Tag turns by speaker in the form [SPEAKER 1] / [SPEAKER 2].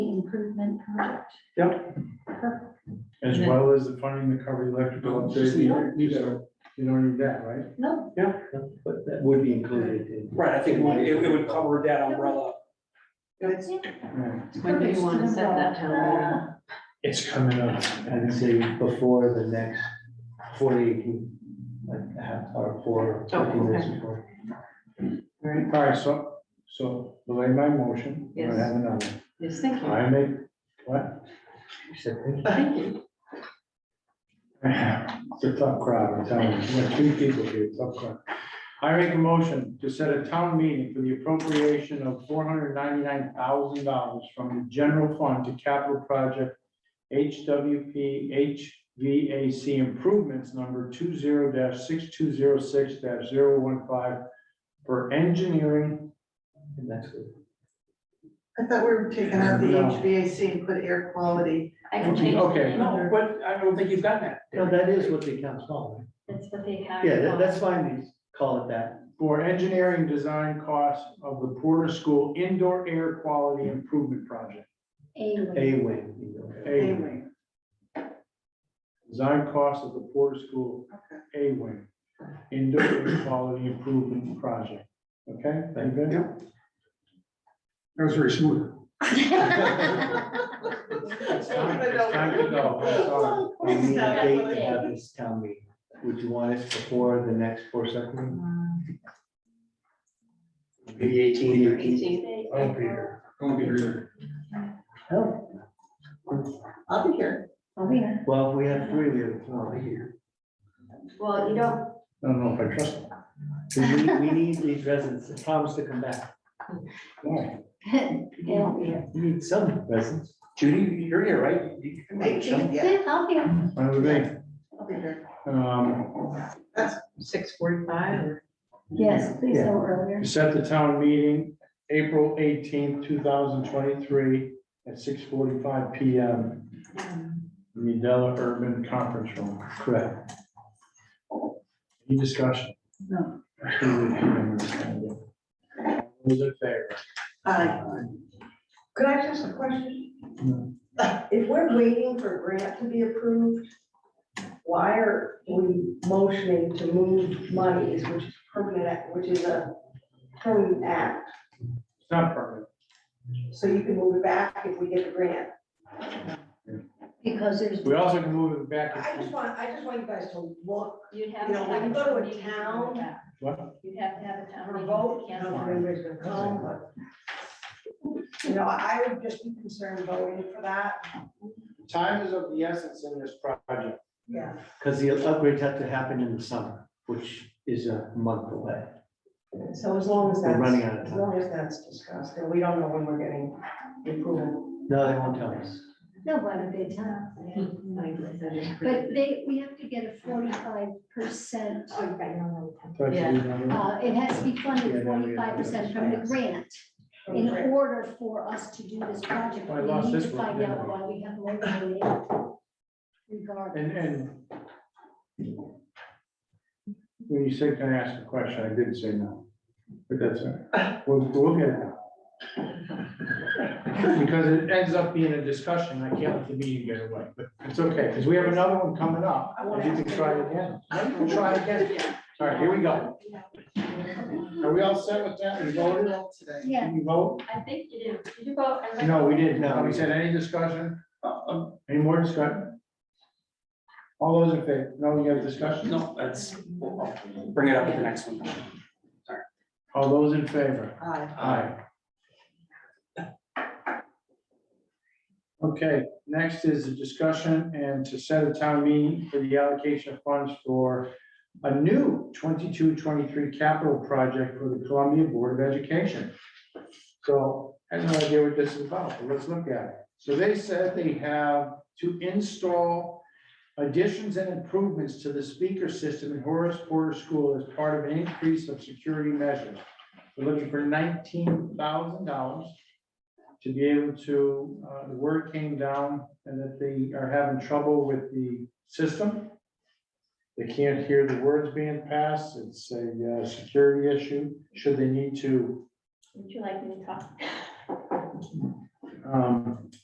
[SPEAKER 1] project.
[SPEAKER 2] Yep,
[SPEAKER 1] Perfect.
[SPEAKER 2] as well as the funding the cover electrical update.
[SPEAKER 3] Oh, You don't need that.
[SPEAKER 2] You don't need that, right?
[SPEAKER 1] No,
[SPEAKER 2] Yeah.
[SPEAKER 3] But that would be included in.
[SPEAKER 4] Right, I think it would- it it would cover that umbrella.
[SPEAKER 1] it's.
[SPEAKER 2] Right.
[SPEAKER 5] When do you wanna set that town
[SPEAKER 2] It's coming up.
[SPEAKER 3] I'd say before the next forty-eight, like, a half hour, four,
[SPEAKER 5] Oh,
[SPEAKER 3] fifteen minutes
[SPEAKER 5] okay.
[SPEAKER 3] before.
[SPEAKER 5] meeting? Right,
[SPEAKER 2] All right, so, so delay my motion. We're gonna
[SPEAKER 5] Yes.
[SPEAKER 2] have another.
[SPEAKER 5] yes, thank you.
[SPEAKER 2] I make, what?
[SPEAKER 3] You said, thank you.
[SPEAKER 5] Thank you.
[SPEAKER 2] It's a tough crowd, I'm telling you. We got two people here, tough crowd. I make a motion to set a town meeting for the appropriation of four hundred ninety-nine thousand dollars from the general fund to capital project HWP HVAC improvements number two zero six two zero six 15 for engineering.
[SPEAKER 3] And that's good.
[SPEAKER 6] I thought we were taking out the
[SPEAKER 2] No.
[SPEAKER 6] HVAC and put air quality.
[SPEAKER 1] I can change. the
[SPEAKER 2] Okay,
[SPEAKER 1] name.
[SPEAKER 4] No, but I don't think you've got that.
[SPEAKER 3] No, that is what the account's called.
[SPEAKER 1] That's what they
[SPEAKER 3] right?
[SPEAKER 1] have.
[SPEAKER 3] Yeah, that- that's fine, we call it that.
[SPEAKER 2] for engineering design costs of the Porter School Indoor Air Quality Improvement Project.
[SPEAKER 3] A wing. you know.
[SPEAKER 2] A wing.
[SPEAKER 6] Anyway,
[SPEAKER 2] Design cost of the Porter School A wing, indoor air quality improvement project, okay? Thank you.
[SPEAKER 4] That was very smooth.
[SPEAKER 2] It's time it's time to go, I'm sorry.
[SPEAKER 3] We need a date to have this town meeting. Would you want us before the next four second? Maybe eighteen.
[SPEAKER 5] Eighteen.
[SPEAKER 1] I'll be here.
[SPEAKER 4] Don't be rude.
[SPEAKER 6] I'll be here.
[SPEAKER 7] Oh,
[SPEAKER 1] I'll be here.
[SPEAKER 3] Well, if we have three, we have four here.
[SPEAKER 1] Well, you don't,
[SPEAKER 2] I don't know if I trust. them.
[SPEAKER 3] We need, we need these residents to promise to come back.
[SPEAKER 2] Why?
[SPEAKER 1] you won't be here.
[SPEAKER 3] We need some residents.
[SPEAKER 4] Judy, you're here, right? You can make some.
[SPEAKER 6] Eighteenth, yeah,
[SPEAKER 1] I'll be here.
[SPEAKER 2] Why would they?
[SPEAKER 6] I'll be here.
[SPEAKER 2] Um,
[SPEAKER 5] Six forty-five or?
[SPEAKER 1] Yes, please
[SPEAKER 3] Yeah.
[SPEAKER 1] go earlier.
[SPEAKER 2] set the town meeting, April eighteenth, two thousand twenty-three, at six forty-five P M. in the Della Urban Conference Room.
[SPEAKER 3] Correct.
[SPEAKER 2] Any discussion?
[SPEAKER 6] No.
[SPEAKER 2] Those in favor?
[SPEAKER 6] Aye.
[SPEAKER 7] Could I ask a question?
[SPEAKER 2] Hmm.
[SPEAKER 7] If we're waiting for a grant to be approved, why are we motioning to move monies, which is permanent, act- which is a permanent act?
[SPEAKER 2] It's not permanent.
[SPEAKER 7] So you can move it back if we get the grant.
[SPEAKER 1] Because there's.
[SPEAKER 2] We also can move it back.
[SPEAKER 7] I just want, I just want you guys to look,
[SPEAKER 1] You'd
[SPEAKER 7] You know, when you go to a town-
[SPEAKER 2] What?
[SPEAKER 1] You'd have to have a town.
[SPEAKER 7] for a
[SPEAKER 1] meeting to
[SPEAKER 7] vote, I don't
[SPEAKER 1] cancel
[SPEAKER 7] know if
[SPEAKER 1] it.
[SPEAKER 7] anybody's gonna come, but. You know, I I would just be concerned voting for that,
[SPEAKER 2] Time is of the essence in this project.
[SPEAKER 7] yeah.
[SPEAKER 3] Because the upgrades have to happen in the summer, which is a month away.
[SPEAKER 7] So as long as
[SPEAKER 3] We're
[SPEAKER 7] that's,
[SPEAKER 3] running out of
[SPEAKER 7] as
[SPEAKER 3] time.
[SPEAKER 7] long as that's discussed, and we don't know when we're getting the approval.
[SPEAKER 3] No, they won't tell us.
[SPEAKER 1] No, why would they tell?
[SPEAKER 5] But
[SPEAKER 8] But they, we have to get a forty-five percent,
[SPEAKER 1] Oh, you got your own.
[SPEAKER 8] uh, it has to be funded forty-five percent from the grant in order for us to do this project.
[SPEAKER 2] Well, I lost
[SPEAKER 8] We need to
[SPEAKER 2] this one,
[SPEAKER 8] find
[SPEAKER 2] didn't I?
[SPEAKER 8] out why we have more than we have. Regardless.
[SPEAKER 2] And, and when you said, can I ask a question? I didn't say no, but that's all right. We'll, we'll get it. now. Because it ends up being a discussion. I can't let the meeting get away, but it's okay, because we have another one coming up.
[SPEAKER 7] I wanna
[SPEAKER 2] and You
[SPEAKER 7] ask
[SPEAKER 2] can try it again. You can try it again. All right, here we go. Are we all set with that? We voted?
[SPEAKER 8] Yeah.
[SPEAKER 2] Did we vote?
[SPEAKER 1] I think you did. Did you vote? I read-
[SPEAKER 2] No, we didn't. No, we said any discussion? Uh, uh, Any more discussion? All those in favor? No, we have discussion?
[SPEAKER 4] No, that's, we'll- I'll bring it up at the next one.
[SPEAKER 2] All those in favor?
[SPEAKER 6] Aye.
[SPEAKER 2] Aye. Okay, next is a discussion and to set a town meeting for the allocation of funds for a new 22-23 capital project for the Columbia Board of Education. So I have no idea what this is about, but let's look at it. So they said they have to install additions and improvements to the speaker system in Horace Porter School as part of an increase of security measures. We're looking for nineteen thousand dollars to be able to, uh, the word came down and that they are having trouble with the system. They can't hear the words being passed. It's a, uh, security issue. Should they need to,
[SPEAKER 1] Would you like me to talk?
[SPEAKER 2] um,